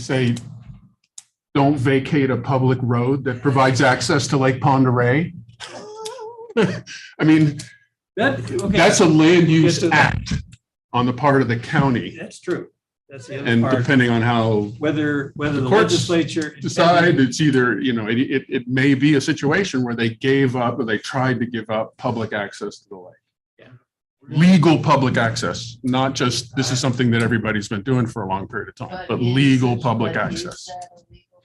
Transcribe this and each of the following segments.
say, don't vacate a public road that provides access to Lake Pond Array? I mean, That, okay, that's a land use Yes, it is. act on the part of the county. that's true. That's the other And part, depending on how whether, whether the courts legislature. decide, it's either, you know, it, it, it may be a situation where they gave up or they tried to give up public access to the lake. Yeah. Legal public access, not just, this is something that everybody's been doing for a long period of time, but is- legal public but is access. that a legal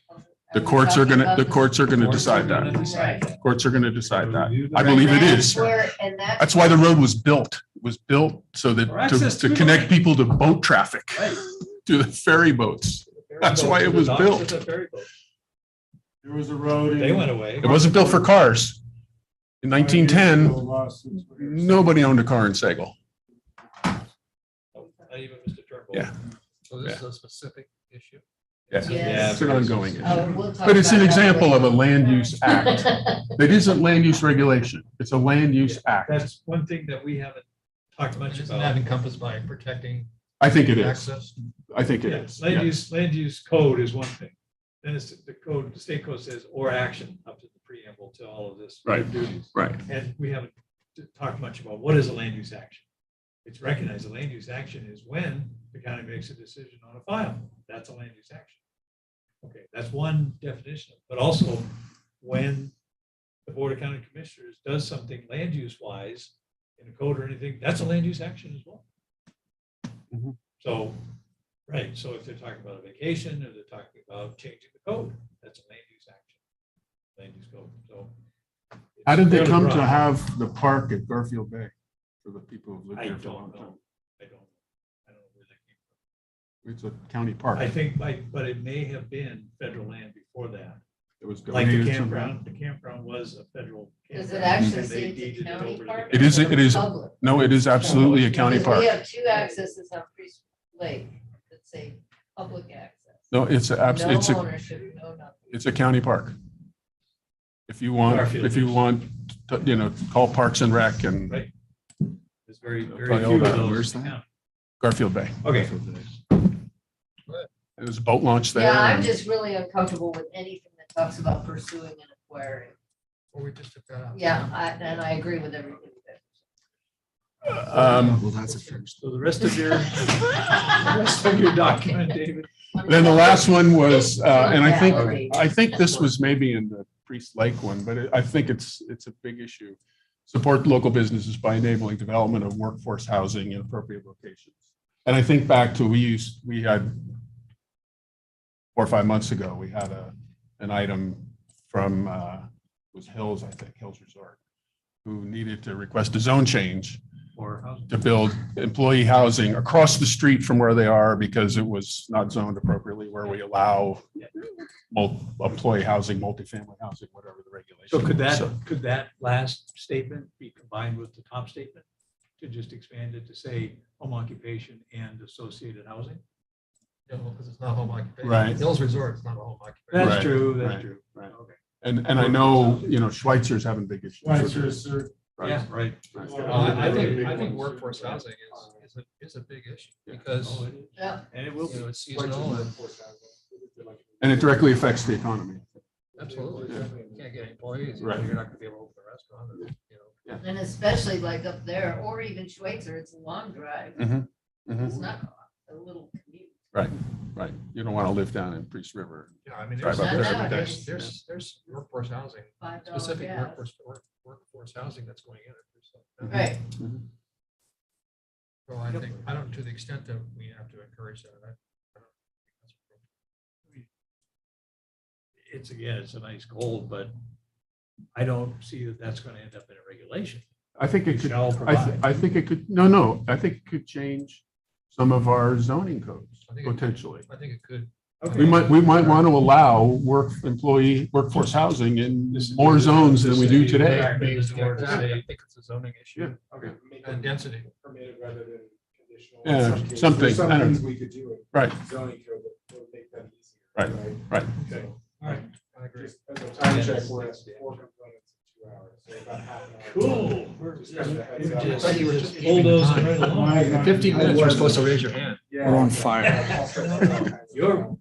public- The are we courts are talking gonna, about the courts are gonna Courts are decide that. gonna decide that. Courts are going to decide that. Review the I believe it And is. that's where- And that's. That's why the road was built, It was built so that For to, access to to the connect lake. people to boat traffic, Right. to the ferry boats. That's why it was The docks built. is a ferry boat. There was a road. They went away. It wasn't built for cars. In 1910, No. nobody owned a car in Sagal. Not even Mr. Turnbull. Yeah. So this is a specific issue. Yeah. Yeah. It's an ongoing issue. Oh, we'll talk But it's an about that example of a land use later. act. It isn't land use regulation. It's a land use act. That's one thing that we haven't talked much Isn't that about. encompassed by protecting I think it is. access? I think it Yeah, is. Land Yeah. use, land use code is one thing. Then it's the code, the state code says, or action up to the preamble to all of this. Right. Duties. Right. And we haven't t- talked much about what is a land use action. It's recognized a land use action is when the county makes a decision on a file. That's a land use action. Okay, that's one definition, but also when the Board of County Commissioners does something land use wise in a code or anything, that's a land use action as well. Mhm. So, right, so if they're talking about a vacation or they're talking about changing the code, that's a land use action. Land use code, so. it's How did they fairly come to broad. have the park at Garfield Bay for the people who've lived I here don't for a long time? know. I don't, I don't know where that came from. It's a county park. I think, like, but it may have been federal land before that, It was like the donated to- campground, the campground was a federal. Does it campground, actually and they say it's a deeded it county over to the park? It is- it is- Public. No, it is absolutely a county Because park. We have two accesses on Priest Lake that say public access. No, it's a, abs- it's No a, ownership, no nothing. it's a county park. If you want, Garfield if you is. want, to- you know, call Parks and Rec and Right. There's very, I'll very tell you few of about it. those. Where's in that? town. Garfield Bay. Okay, There's a boat launch there. Yeah, I'm and- just really uncomfortable with anything that talks about pursuing an aquarium. Or we just took that out? Yeah, I- and I agree with everything. Um, Well, that's a first. so the rest of your, the that- rest of your document, David, Then the last one was, uh, and I think, Yeah. I think this was maybe in the Priest Lake one, but it- I think it's, it's a big issue. Support local businesses by enabling development of workforce housing in appropriate locations. And I think back to, we used, we had four or five months ago, we had a, an item from, uh, it was Hills, I think, Hills Resort, who needed to request a zone change or how's to build employee housing across the street from where they are because it was not zoned appropriately where we allow mul- employee housing, multifamily housing, whatever the regulation. So could is. that, could that last statement be combined with the top statement? To just expand it to say home occupation and associated housing? No, because it's not home occupation. Right. Hills Resort, it's not a home occupation. Right, That's true, right, that's true. right. Okay. And, and I know, you know, Schweitzer's having big issues. with their- Right. Yeah, right. Right. Well, I I think, I think workforce housing is, is a, is a big issue Yeah. because, Oh, it is. Yeah. And it will you be. know, it's seasonal and And it directly affects the economy. absolutely, you can't get employees. you know, Right. You're not gonna be able to open a restaurant, and, you know. And especially like up there, or even Schweitzer, it's a long drive. Mhm, mhm. It's not a little commute. Right. You don't want to live down in Priest River. Yeah, I mean, Drive there's, up there every day. there's, there's, there's workforce housing, Five dollars specific gas. workforce, work- workforce housing that's going in. there, so. Right, So I think, I don't, to the extent that we have to encourage that, I- I don't think that's appropriate. It's, again, it's a nice goal, but I don't see that that's going to end up in a regulation. I think it could, Shall I, th- provide. I think it could, no, no, I think it could change some of our zoning codes I think it could. potentially. I think it could. We might, we might want to allow work, employee workforce housing in more zones than we do today. Right, but it's Yeah, more to exactly. I say- think it's a zoning Yeah. issue and density. Permitted rather than conditional. Yeah, In some cases, something, there's I Some don't- things we could do Right. in zoning code that would make that easier. Right, right. So, All right. I agree. Just as a time Yes. check, we're at four components in two hours, so about half an hour. Cool. We're Just just- kind of a heads we're up. just I thought you were just bulldozing right along. My- In 15 minutes, I we're was- supposed to raise your hand. Yeah. We're on fire. Yeah, all sorts of- You're